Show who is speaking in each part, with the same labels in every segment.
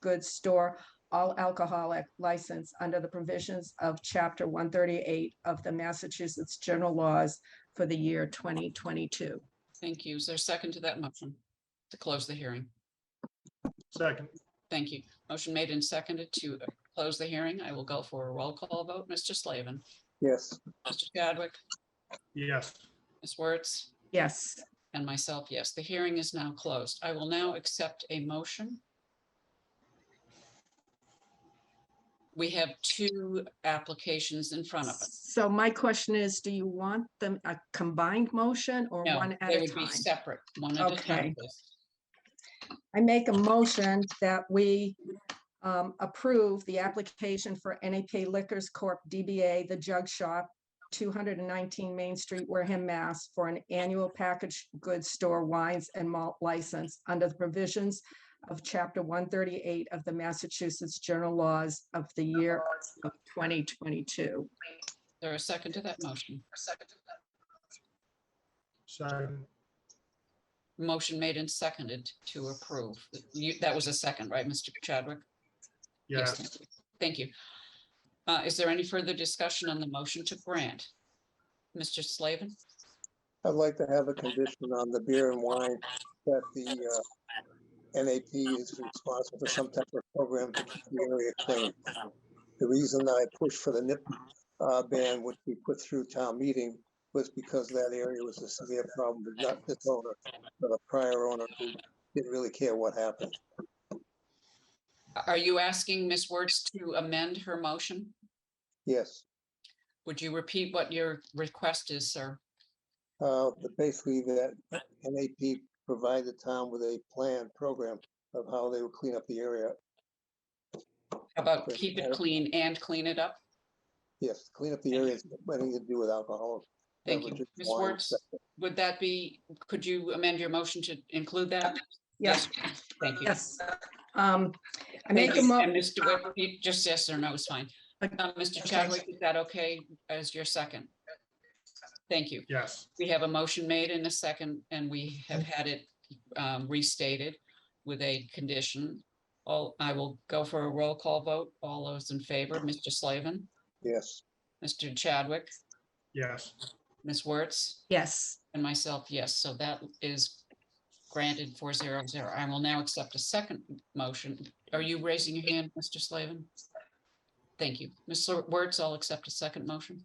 Speaker 1: goods store all alcoholic license under the provisions of Chapter 138 of the Massachusetts General Laws for the year 2022.
Speaker 2: Thank you. Is there a second to that motion to close the hearing?
Speaker 3: Second,
Speaker 2: Thank you. Motion made and seconded to close the hearing. I will go for a roll call vote. Mr. Slavin,
Speaker 4: yes,
Speaker 2: Mr. Chadwick,
Speaker 3: yes,
Speaker 2: Ms. Wertz,
Speaker 1: Yes,
Speaker 2: and myself, yes. The hearing is now closed. I will now accept a motion. We have two applications in front of us.
Speaker 1: so my question is, do you want them a combined motion or
Speaker 2: No,
Speaker 1: one at
Speaker 2: they
Speaker 1: a
Speaker 2: would be
Speaker 1: time?
Speaker 2: separate, one at a time.
Speaker 1: Okay. I make a motion that we um, approve the application for NAP Liquors Corp. DBA The Jug Shop, 219 Main Street, Wareham, Mass. for an annual packaged goods store wines and malt license under the provisions of Chapter 138 of the Massachusetts General Laws of the year of 2022.
Speaker 2: There a second to that motion?
Speaker 3: second,
Speaker 2: Motion made and seconded to approve. You, that was a second, right, Mr. Chadwick?
Speaker 3: yes,
Speaker 2: thank you. Thank you. Uh, is there any further discussion on the motion to grant? Mr. Slavin,
Speaker 4: I'd like to have a condition on the beer and wine that the uh, NAP is responsible for some type of program to keep the area clean. The reason that I pushed for the nip uh, ban, which we put through town meeting, was because that area was a severe problem, but not this owner, but a prior owner who didn't really care what happened.
Speaker 2: are you asking Ms. Wertz to amend her motion?
Speaker 4: Yes.
Speaker 2: Would you repeat what your request is, sir?
Speaker 4: Uh, but basically that NAP provide the town with a plan program of how they would clean up the area.
Speaker 2: About
Speaker 4: Great.
Speaker 2: keep it clean and clean it up?
Speaker 4: Yes, clean up the areas, anything to do with alcohol.
Speaker 2: Thank you.
Speaker 4: beverages,
Speaker 2: Ms.
Speaker 4: wine,
Speaker 2: Wertz, would that be, could you amend your motion to include that?
Speaker 1: Yes,
Speaker 2: Thank you.
Speaker 1: yes. Um, I
Speaker 2: Thank
Speaker 1: make a
Speaker 2: you.
Speaker 1: mo,
Speaker 2: And Mr. Wick, you- just yes or no is fine. Uh,
Speaker 1: Okay.
Speaker 2: Mr. Chadwick, is that okay as your second? Thank you.
Speaker 3: yes,
Speaker 2: We have a motion made in a second, and we have had it um, restated with a condition. All, I will go for a roll call vote. All those in favor, Mr. Slavin,
Speaker 4: Yes,
Speaker 2: Mr. Chadwick,
Speaker 3: yes,
Speaker 2: Ms. Wertz,
Speaker 1: yes,
Speaker 2: and myself, yes. So that is granted four zero zero. I will now accept a second motion. Are you raising your hand, Mr. Slavin? Thank you. Ms. Wertz, I'll accept a second motion.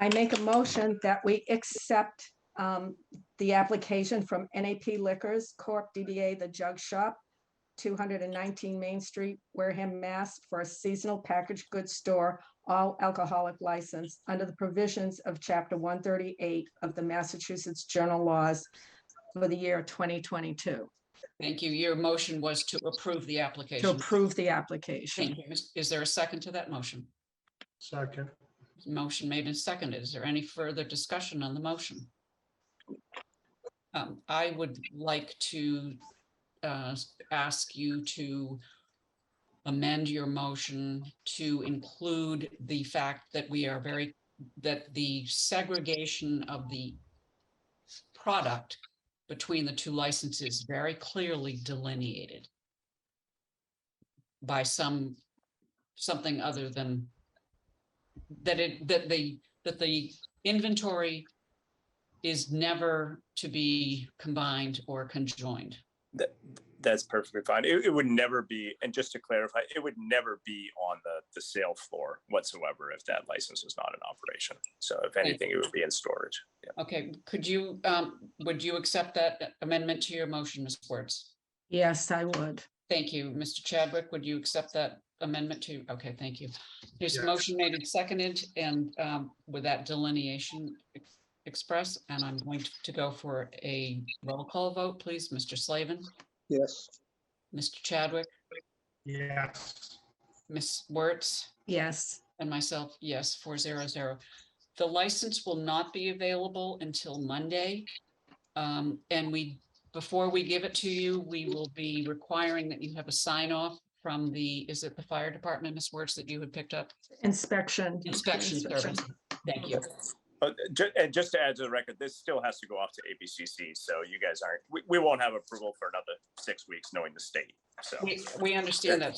Speaker 1: I make a motion that we accept um, the application from NAP Liquors Corp. DBA The Jug Shop, 219 Main Street, Wareham, Mass. for a seasonal packaged goods store, all alcoholic license under the provisions of Chapter 138 of the Massachusetts General Laws for the year 2022
Speaker 2: Thank you. Your motion was to approve the
Speaker 1: to
Speaker 2: application.
Speaker 1: approve the application.
Speaker 2: Thank you. Is- Is there a second to that motion?
Speaker 3: second,
Speaker 2: Motion made and seconded. Is there any further discussion on the motion? Um, I would like to uh, s- ask you to amend your motion to include the fact that we are very, that the segregation of the product between the two licenses very clearly delineated by some, something other than that it, that the, that the inventory is never to be combined or conjoined.
Speaker 5: That, that's perfectly fine. It, it would never be, and just to clarify, it would never be on the, the sale floor whatsoever if that license is not in operation. So if anything, it would be in storage. Yeah.
Speaker 2: Okay, could you, um, would you accept that amendment to your motion, Ms. Wertz?
Speaker 1: Yes, I would.
Speaker 2: Thank you. Mr. Chadwick, would you accept that amendment to, okay, thank you. There's a
Speaker 3: Yes.
Speaker 2: motion made and seconded and um, with that delineation ex- express, and I'm going to go for a roll call vote, please. Mr. Slavin,
Speaker 4: yes,
Speaker 2: Mr. Chadwick,
Speaker 3: yes,
Speaker 2: Ms. Wertz,
Speaker 1: Yes,
Speaker 2: and myself, yes, four zero zero. The license will not be available until Monday. Um, and we, before we give it to you, we will be requiring that you have a sign off from the, is it the fire department, Ms. Wertz, that you had picked up?
Speaker 1: inspection.
Speaker 2: Inspection service. Thank you.
Speaker 5: But ju- and just to add to the record, this still has to go off to ABCC. So you guys aren't, we, we won't have approval for another six weeks knowing the state. so.
Speaker 2: We, we understand that